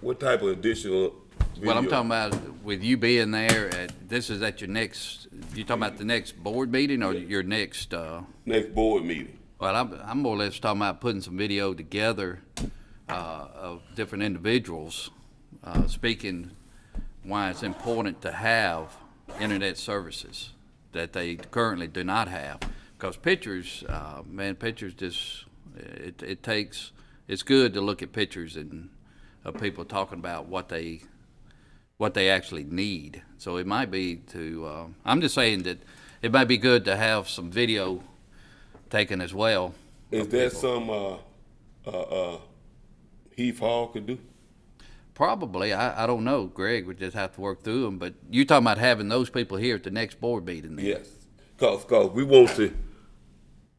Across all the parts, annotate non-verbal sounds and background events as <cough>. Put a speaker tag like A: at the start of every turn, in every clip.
A: What type of additional video?
B: Well, I'm talking about with you being there, at, this is at your next, you talking about the next board meeting or your next, uh,
A: Next board meeting.
B: well, I'm, I'm more or less talking about putting some video together, uh, of different individuals, uh, speaking why it's important to have internet services that they currently do not have. Because pictures, uh, man, pictures just, it, it takes, it's good to look at pictures and, of people talking about what they, what they actually need. So it might be to, uh, I'm just saying that it might be good to have some video taken as well.
A: Is that some, uh, uh, uh, Heath Hall could do?
B: Probably, I, I don't know, Greg, we just have to work through them, but you're talking about having those people here at the next board meeting then?
A: Yes. Cause, 'cause we want to,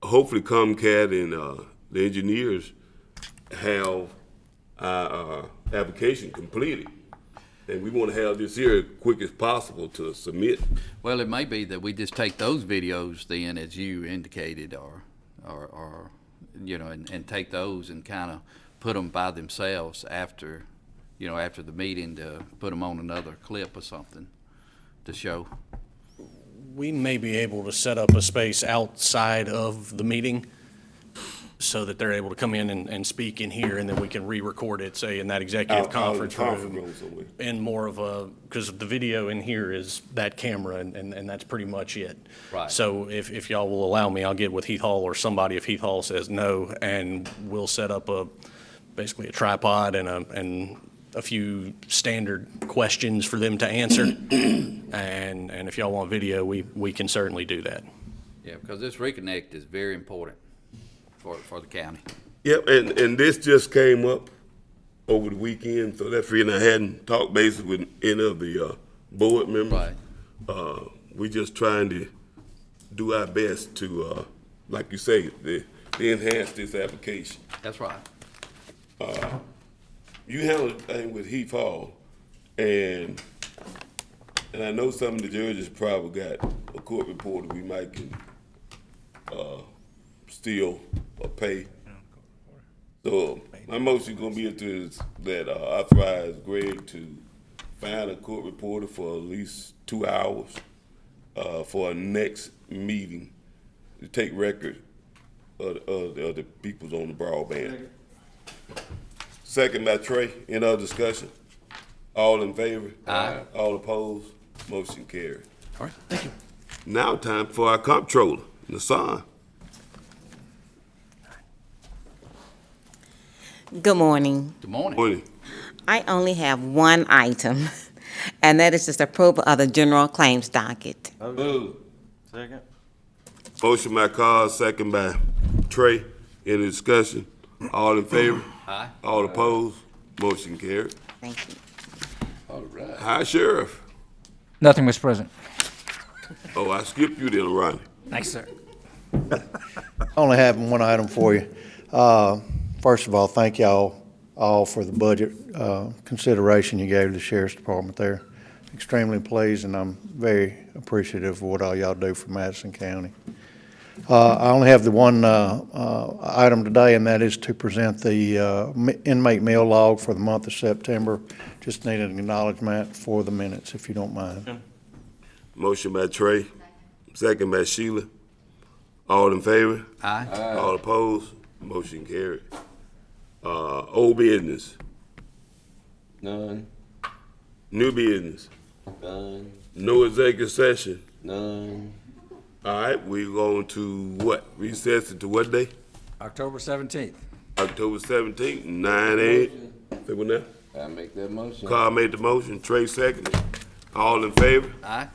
A: hopefully Comcast and, uh, the engineers have our, uh, application completed. And we wanna have this here as quick as possible to submit.
B: Well, it may be that we just take those videos then, as you indicated, or, or, or, you know, and, and take those and kind of put them by themselves after, you know, after the meeting to put them on another clip or something to show.
C: We may be able to set up a space outside of the meeting so that they're able to come in and, and speak in here, and then we can re-record it, say, in that
A: Out- out
C: executive
A: in the
C: conference
A: Oh, conference
C: room.
A: room somewhere.
C: In more of a, because the video in here is that camera, and, and and that's pretty much it.
B: Right.
C: So if, if y'all will allow me, I'll get with Heath Hall or somebody if Heath Hall says no, and we'll set up a, basically a tripod and a, and a few standard questions for them to answer. And, and if y'all want video, we, we can certainly do that.
B: Yeah, because this reconnect is very important for, for the county.
A: Yep, and, and this just came up over the weekend, so that's reason I hadn't talked basically with any of the, uh, board members.
B: Right.
A: Uh, we just trying to do our best to, uh, like you say, to to enhance this application.
B: That's right.
A: You handled the thing with Heath Hall, and, and I know some of the judges probably got a court reporter we might can, uh, steal or pay. So my motion gonna be to, is that uh, authorize Greg to find a court reporter for at least two hours, uh, for our next meeting, to take record of, of, of the peoples on the broadband. Second by Trey, any other discussion? All in favor? Aye. All opposed? Motion carried.
B: All right,
A: thank you. Now time for our comptroller, Nassan.
D: Good morning.
B: Good morning.
A: Morning.
D: I only have one item, <laughs> and that is just approval of the general claims docket.
E: Second.
A: Motion by Carl, second by Trey. Any discussion? All in favor?
B: Aye.
A: All opposed? Motion carried.
D: Thank you.
B: All right.
A: Hi, Sheriff.
F: Nothing, Mr. President.
A: Oh, I skipped you then, Ronnie.
F: Thanks, sir.
G: I only have one item for you. Uh, First of all, thank y'all all for the budget uh, consideration you gave the sheriff's department there. Extremely pleased, and I'm very appreciative of what all y'all do for Madison County. Uh, I only have the one uh, uh, item today, and that is to present the uh, m- inmate meal log for the month of September. Just need an acknowledgement for the minutes, if you don't mind.
A: Motion by Trey, second by Sheila. All in favor?
B: Aye.
A: All opposed? Motion carried. Uh, old business,
E: None,
A: new business,
E: none,
A: no executive session.
E: none.
A: All right, we're going to what? Recess it to what day?
F: October 17th.
A: October seventeenth, nine a.m. Say what now?
E: I make that motion.
A: Carl made the motion, Trey seconded. All in favor?
B: Aye.